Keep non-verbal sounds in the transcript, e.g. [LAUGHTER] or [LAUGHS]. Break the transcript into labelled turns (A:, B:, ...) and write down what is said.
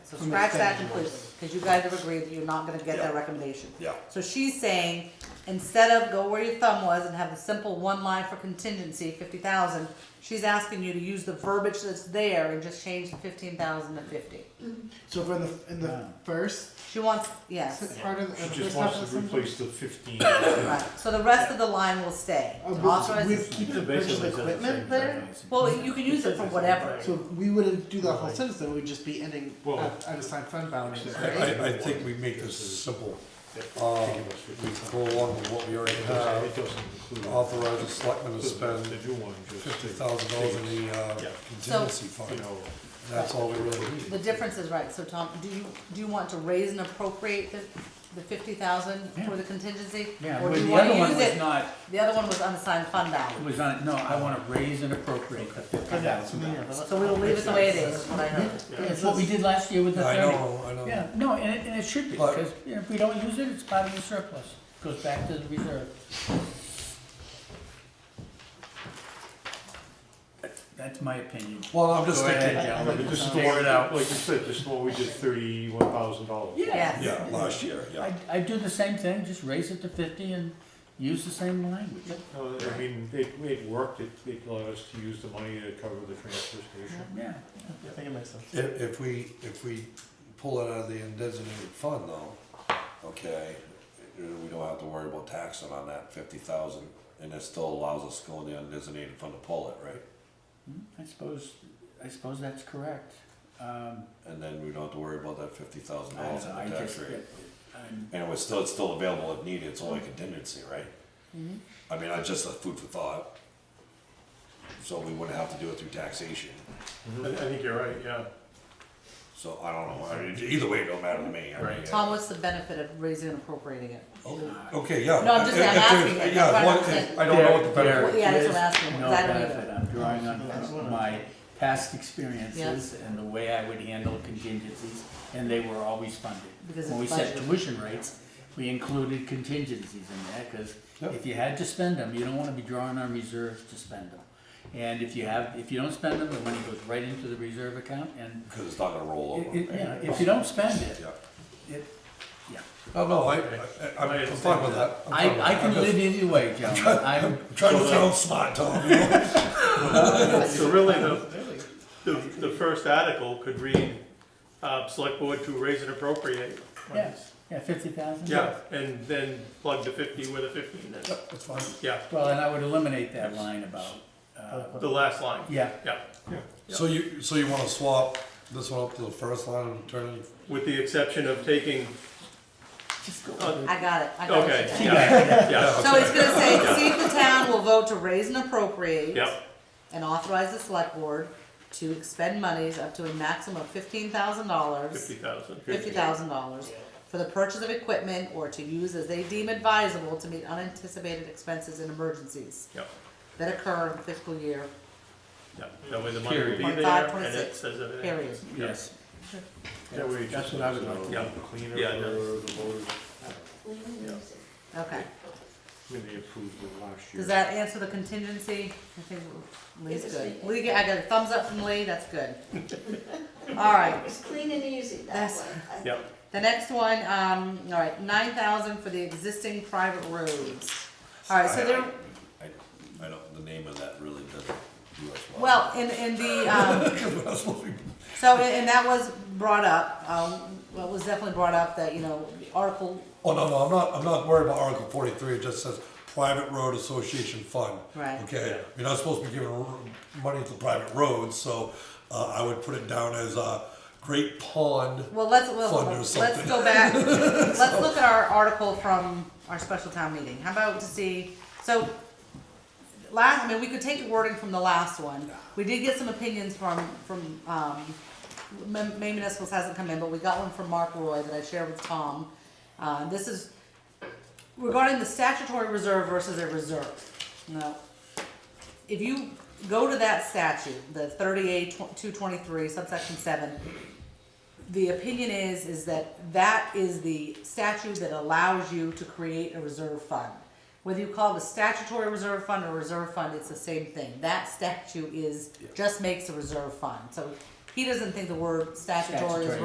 A: So
B: From the
A: scratch that
B: standing
A: completely, because you guys have agreed that you're not gonna get that recommendation.
C: Yeah.
A: So she's saying, instead of go where your thumb was and have a simple one line for contingency, fifty thousand, she's asking you to use the verbiage that's there and just change the fifteen thousand to fifty.
B: So for the in the first
A: She wants, yes,
B: part of the
D: She
B: first
D: just
B: half of
D: wants to
B: the sentence?
D: replace the fifteen.
A: right, so the rest of the line will stay.
B: Uh, we-
A: Authorize-
B: we keep the purchase of equipment there.
A: Well, you can use it for whatever.
B: So we wouldn't do the whole sentence. Then we'd just be ending
D: Well-
B: at, at assigned fund balance. Right?
C: I, I think we make this simple. Uh, we go along with what we already
D: It
C: have,
D: doesn't include.
C: authorize the selectmen to spend
D: The new one just.
C: fifty thousand dollars in the uh,
D: Yeah.
C: contingency
D: You
C: fund.
D: know,
C: That's all we really need.
A: The difference is, right, so Tom, do you, do you want to raise and appropriate the, the fifty thousand for the contingency?
E: Yeah,
A: Or
E: but
A: do you
E: the
A: wanna
E: other one
A: use
E: was
A: it-
E: not,
A: The other one was unassigned fund balance,
E: was on, no, I wanna raise and appropriate the fifty thousand dollars.
A: so we'll leave it the way it is, is what I heard.
E: That's what we did last year with the
C: I
E: thirty.
C: know, I know.
E: Yeah, no, and it, and it should be,
C: But-
E: because if we don't use it, it's part of the surplus, goes back to the reserve. That's my opinion.
C: Well, I'm just
E: Go
C: thinking,
E: ahead,
D: I
E: John.
D: mean, this is the
E: Figure
D: one,
E: it out.
D: like you said, this is the one we did thirty-one thousand dollars.
A: Yes.
C: yeah, last year, yeah.
E: I, I do the same thing, just raise it to fifty and use the same language.
D: No, I mean, it, it worked, it, it allowed us to use the money to cover the transfer station.
E: Yeah,
B: I think it makes sense.
C: If, if we, if we pull it out of the undesignated fund though, okay, we don't have to worry about taxing on that fifty thousand, and it still allows us to go in the undesignated fund to pull it, right?
E: Hmm, I suppose, I suppose that's correct. Um,
C: And then we don't have to worry about that fifty thousand
E: I,
C: dollars
E: I
C: in the tax
E: just,
C: rate.
E: I'm,
C: And it was still, it's still available if needed, it's only
E: Mm-hmm.
C: contingency, right? I mean, I just, uh, food for thought. So we wouldn't have to do it through taxation,
D: I, I think you're right, yeah.
C: so I don't know, I mean, either way, it don't matter to me, I mean.
D: Right.
A: Tom, what's the benefit of raising and appropriating it?
C: Okay, yeah.
A: No, I'm just-
C: If-
A: I'm
C: if there's-
A: asking it, that's
C: Yeah,
A: what I'm
C: what-
A: saying.
C: I don't know what the
E: There-
C: benefit,
E: there
A: Yeah, that's what I'm
E: is
A: asking,
E: no
A: 'cause I don't
E: benefit.
A: either.
E: I'm drawing on my past experiences and the way I would handle contingencies, and they were always funded.
A: Because
E: When we
A: it's
E: set
A: budgeted.
E: tuition rates, we included contingencies in there, cause if you had to spend them, you don't wanna be drawing on reserves to spend them. And if you have, if you don't spend them, the money goes right into the reserve account, and
C: because it's not gonna roll
E: it,
C: over.
E: it, you know, if you don't spend it,
C: Yeah.
E: it, yeah.
C: Oh, no, I, I- I, I'm fine with that. I'm fine with
E: I, I
C: that.
E: can
C: I'm just-
E: live
C: [LAUGHS]
E: either way, gentlemen, I'm,
C: I'm Trying to sound smart, Tom, you know?
F: So really, the, the, the first article could read, uh, select board to raise and appropriate.
E: yeah, yeah, fifty thousand?
F: Yeah, and then plug the fifty with a fifteen is,
C: Yep, That's fine.
F: yeah,
E: Well, and I would eliminate that line about, uh,
F: the last line,
E: yeah,
F: yeah.
C: So you, so you wanna swap this one up to the first line and turn it?
F: With the exception of taking,
E: just go.
F: uh,
A: I got it, I got
F: okay,
A: it.
F: yeah, yeah,
A: So it's gonna say, see if the town will vote to raise and appropriate.
F: yeah,
A: And authorize the select board to expend monies up to a maximum of fifteen thousand dollars,
F: fifty thousand.
A: fifty thousand dollars for the purchase of equipment or to use as they deem advisable to meet unanticipated expenses and emergencies
F: Yeah,
A: that occur in fiscal year,
F: yeah, that way the money will be
A: Period.
F: there,
A: 0.5,
F: and it says everything.
A: period.
E: Yes.
D: That way it
E: That's
D: just
E: what I
D: is
E: would like to
D: a
F: do.
D: little Cleaner
F: Yeah,
D: for
F: no.
D: the voters,
A: Okay,
D: I mean, they approved it last year.
A: does that answer the contingency? I think Lee's good. Lee, I got a thumbs up from Lee, that's good. [LAUGHS] All right,
G: It's clean and easy that
A: That's-
G: way. I-
F: Yeah,
A: The next one, um, all right, nine thousand for the existing private roads. All right, so there,
C: I, I don't, the name of that really doesn't do us well.
A: well, in, in the, um,
C: [LAUGHS] Well.
A: so, and and that was brought up, um, well, it was definitely brought up that, you know, the article,
C: Oh, no, no, I'm not, I'm not worried about Article forty-three, it just says private road association fund.
A: Right.
C: Okay, you're not supposed to be giving r- money to private roads, so, uh, I would put it down as a great pond.
A: well, let's, well,
C: Fund or
A: let's
C: something.
A: go
C: [LAUGHS]
A: back. Let's look at our article from our special town meeting. How about to see, so, last, I mean, we could take the wording from the last one. We did get some opinions from, from, um, Ma- Maine Municipals hasn't come in, but we got one from Mark Roy that I shared with Tom. Uh, this is regarding the statutory reserve versus a reserve. Now, if you go to that statute, the thirty-eight, two twenty-three, subsection seven, the opinion is, is that that is the statute that allows you to create a reserve fund. Whether you call it a statutory reserve fund or reserve fund, it's the same thing. That statute is, just makes a reserve fund. So he doesn't think the word statutory is
E: Statutory.